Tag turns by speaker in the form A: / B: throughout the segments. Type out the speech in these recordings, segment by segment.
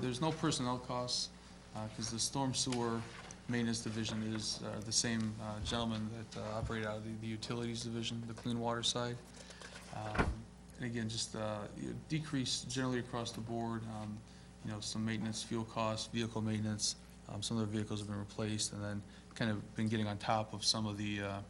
A: there's no personnel costs, because the storm sewer maintenance division is uh, the same uh, gentleman that uh, operated out of the- the utilities division, the clean water side. Um, And again, just uh, you know, decrease generally across the board, um, you know, some maintenance, fuel costs, vehicle maintenance. Um, Some of the vehicles have been replaced, and then kind of been getting on top of some of the, uh,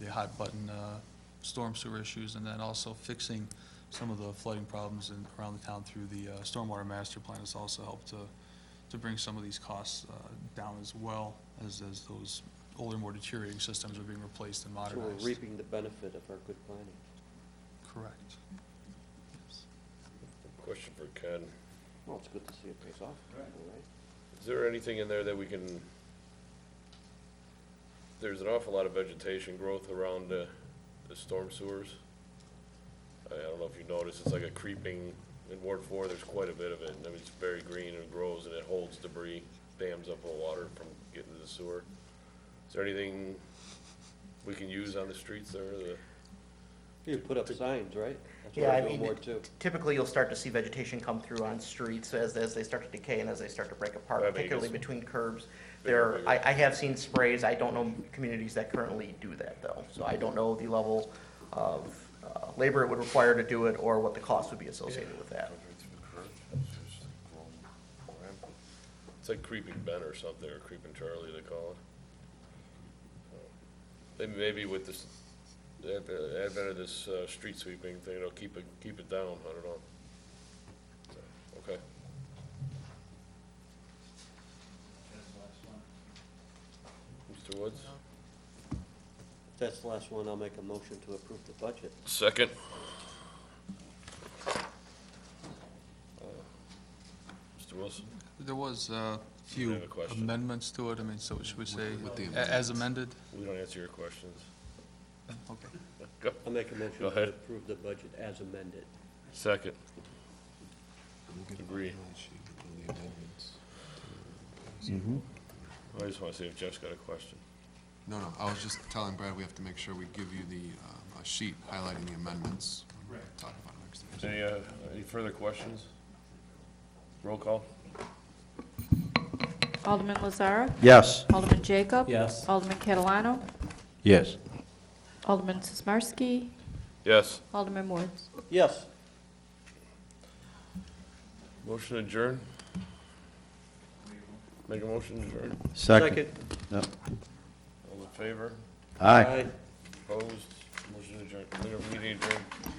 A: the hot button uh, storm sewer issues, and then also fixing some of the flooding problems in, around the town through the uh, stormwater master plan has also helped to, to bring some of these costs uh, down as well as, as those older, more deteriorating systems are being replaced and
B: So we're
A: modernized.
B: reaping the benefit of our good planning.
A: Correct. Yes.
C: Question for Ken.
B: Well, it's good to see it pays off, all right?
C: Is there anything in there that we can, there's an awful lot of vegetation growth around the, the storm sewers. I I don't know if you noticed, it's like a creeping, in Ward Four, there's quite a bit of it, and I mean, it's very green and grows and it holds debris, dams up the water from getting to the sewer. Is there anything we can use on the streets there, the,
B: You put up signs, right? That's what
D: Yeah, I
B: we're doing
D: mean,
B: more too.
D: typically you'll start to see vegetation come through on streets as, as they start to decay and as they start to break apart,
C: That'd be
D: particularly
C: useful.
D: between curbs.
C: Bigger,
D: There,
C: bigger.
D: I, I have seen sprays, I don't know communities that currently do that though, so I don't know the level of, uh, labor it would require to do it or what the cost would be associated with that.
C: it's like creeping Ben or something, or creeping Charlie, they call it. Maybe, maybe with this, the adv- advent of this, uh, street sweeping thing, it'll keep it, keep it down, I don't know. So, Okay, Mr. Woods?
B: If that's the last one, I'll make a motion to approve the budget.
C: Second. Mr. Uh, Wilson?
A: There was uh, a few
C: have a question?
A: amendments to it, I mean, so should we say, a- as amended?
C: We don't answer your questions.
A: Okay.
C: Go.
B: I'll make a motion
C: Go
B: to
C: ahead.
B: approve the budget as amended.
C: Second. Agree.
E: Agree.
C: I just wanna see if Jeff's got a question.
E: No, no, I was just telling Brad, we have to make sure we give you the, uh, a sheet highlighting the amendments. Right. Talk about it next time.
C: Any, uh, any further questions? Roll call?
F: Alderman Lazara.
G: Yes.
F: Alderman Jacob.
B: Yes.
F: Alderman Catalano.
G: Yes.
F: Alderman Sismarski.
C: Yes.
F: Alderman Woods.
B: Yes.
C: Motion adjourn? Make a motion adjourn?
G: Second.
C: All in favor?
G: Aye.
B: Aye.
C: Opposed? Motion adjourned. Meeting adjourned.